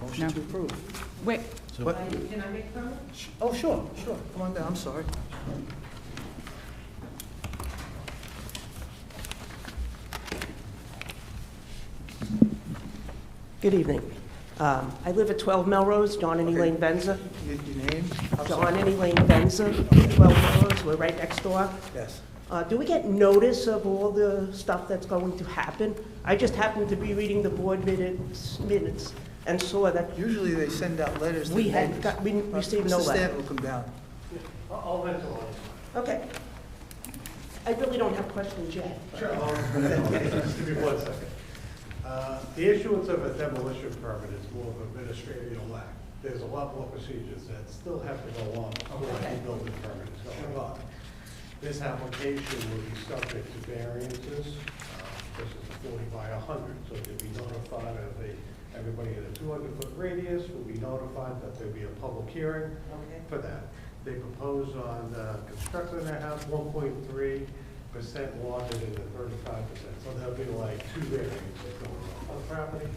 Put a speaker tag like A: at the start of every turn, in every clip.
A: No.
B: motion to approve.
A: Wait,
B: What? Oh, sure, sure, come on down, I'm sorry.
C: Good evening. Um, I live at 12 Melrose, John and
B: Okay.
C: Elaine Benza.
B: Your your name? I'm sorry.
C: John and Elaine Benza, 12 Melrose, we're right next door.
B: Yes.
C: Uh, Do we get notice of all the stuff that's going to happen? I just happened to be reading the board minutes minutes and saw that,
B: Usually they send out letters. to
C: We had
B: neighbors.
C: got- we received no
B: Mr.
C: letter.
B: Stanton will come down.
D: I'll mental on
C: okay. I really don't have questions yet.
D: it. Sure. Just give me one second. Uh, The issuance of a demolition permit is more of an administrative act. There's a lot more procedures that still have to go on before the building permit is going on. This application will be subject to variances. Uh, This is a forty by hundred, so you'll be notified of the, everybody in a two hundred foot radius will be notified that there'll be a public hearing. for that. They propose on uh, constructing their house one point three percent water and thirty-five percent. So that'll be like two variants that go on the property.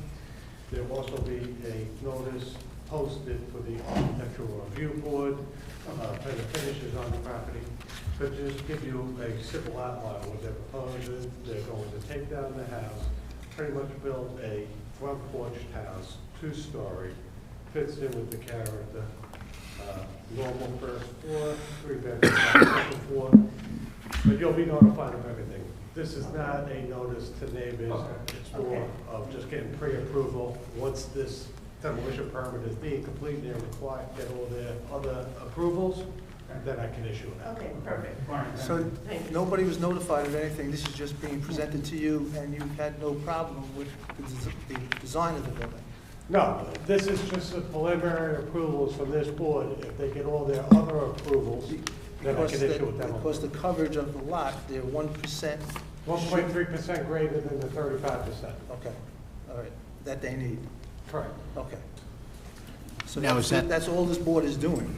D: There'll also be a notice posted for the architectural review board, uh, for the finishes on the property. But just give you a simple outline of what they're proposing. They're going to take down the house, pretty much build a front porch house, two-story, fits in with the character, uh, normal first floor, three bedroom, second floor, but you'll be notified of everything. This is not a notice to neighbors, it's more of just getting pre-approval. Once this demolition permit is being complete, they're required to get all their other approvals, then I can issue it.
C: Okay, perfect.
B: So
C: Thank you.
B: nobody was notified of anything, this is just being presented to you, and you had no problem with the des- the design of the building.
D: No, this is just the preliminary approvals from this board. If they get all their other approvals, then I
B: Because
D: can
B: the-
D: issue a demo.
B: Because the coverage of the lot, they're one percent.
D: One point three percent greater than the thirty-five percent.
B: Okay, all right, that they need,
D: Correct.
B: okay. So
E: Now,
B: that's,
E: is that-
B: that's all this board is doing.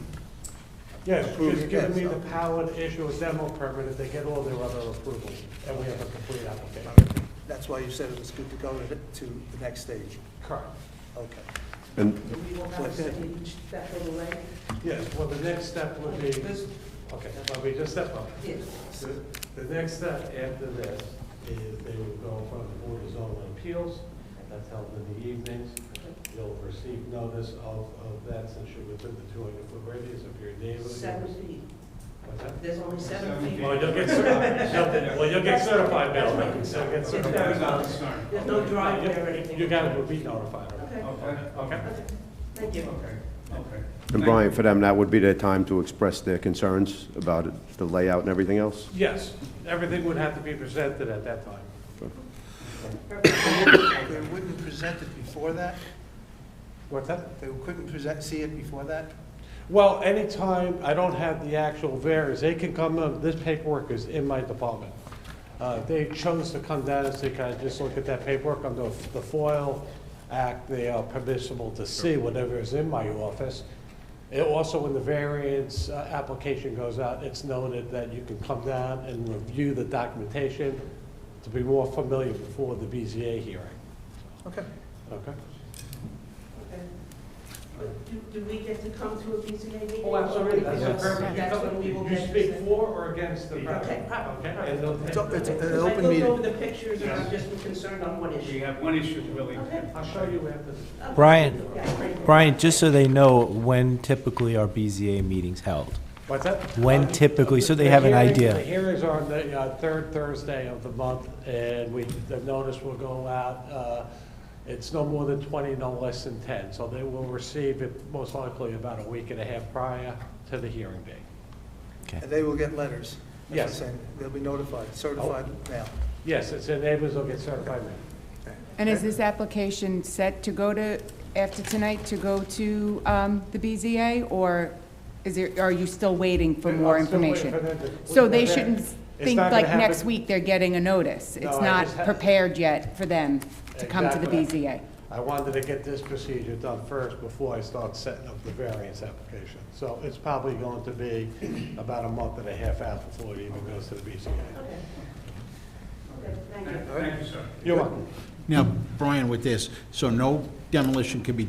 D: Yes,
B: Approve
D: just
B: it,
D: giving me
B: yes.
D: the power to issue a demo permit if they get all their other approvals, and we have a complete
B: All
D: application.
B: right. That's why you said it was good to go to, to the next stage,
D: Correct.
B: okay.
F: And
C: Do we will have
B: Okay.
C: somebody step in the way?
D: Yes, well, the next step would be,
C: This-
D: okay, let me just step up.
C: Yes.
D: The- The next step after this is they will go in front of the Board of Zoning Appeals, that's held in the evenings. You'll receive notice of, of that since you're within the two hundred foot radius of your neighbor.
C: Seven feet.
D: What's that?
C: There's only seven feet.
D: Well, you'll get certified, well, you'll get certified, Bill, so you'll get certified.
C: There's no driveway or anything.
D: You got to be notified.
C: Okay,
D: Okay?
C: thank you.
F: and Brian, for them, that would be their time to express their concerns about it, the layout and everything else?
D: Yes, everything would have to be presented at that time.
B: They wouldn't present it before that?
D: What's that?
B: They couldn't present, see it before that?
D: Well, anytime I don't have the actual variance, they can come, up- this paperwork is in my department. Uh, They chose to come down and say, can I just look at that paperwork under the FOIL Act? They are permissible to see whatever is in my office. It also, when the variance uh, application goes out, it's noted that you can come down and review the documentation to be more familiar before the BZA hearing,
B: Okay.
D: okay?
C: Okay. But do, do we get to come to a BZA meeting?
D: Oh, absolutely, that's the
C: Yes.
D: purpose. You
C: That's
D: come-
C: when we will
D: You
C: get.
D: speak for or against the
C: Okay,
D: project?
C: proper.
D: Okay, and they'll take-
B: It's up- it's-
C: Because
B: an open
C: I
B: meeting.
C: looked over the pictures and I'm just concerned on one issue.
G: You have one issue to really,
C: Okay.
D: I'll show you after this.
H: Brian,
C: Okay.
H: Brian, just so they know, when typically are BZA meetings held?
D: What's that?
H: When typically, so they have an
D: The hearing-
H: idea.
D: The hearings are on the uh, third Thursday of the month, and we, the notice will go out, uh, it's no more than 20, no less than 10, so they will receive it most likely about a week and a half prior to the hearing date.
B: And they will get letters. That's what I'm
D: Yes.
B: saying. They'll be notified, certified
E: Oh.
B: now.
D: Yes, it's, and neighbors will get certified mail.
A: and is this application set to go to, after tonight, to go to um, the BZA? Or is there, are you still waiting for more
D: I'm still waiting
A: information?
D: for them to-
A: So they
D: It's
A: shouldn't
D: not
A: think
D: gonna
A: like
D: happen.
A: next week they're getting a notice?
D: No,
A: It's
D: I
A: not
D: just ha-
A: prepared yet for them to come to the
D: Exactly.
A: BZA?
D: I wanted to get this procedure done first before I start setting up the variance application. So it's probably going to be about a month and a half out before it even goes to the BCA.
C: Okay, Thank you.
G: thank you, sir.
D: You're welcome.
H: Now, Brian, with this, so no demolition can be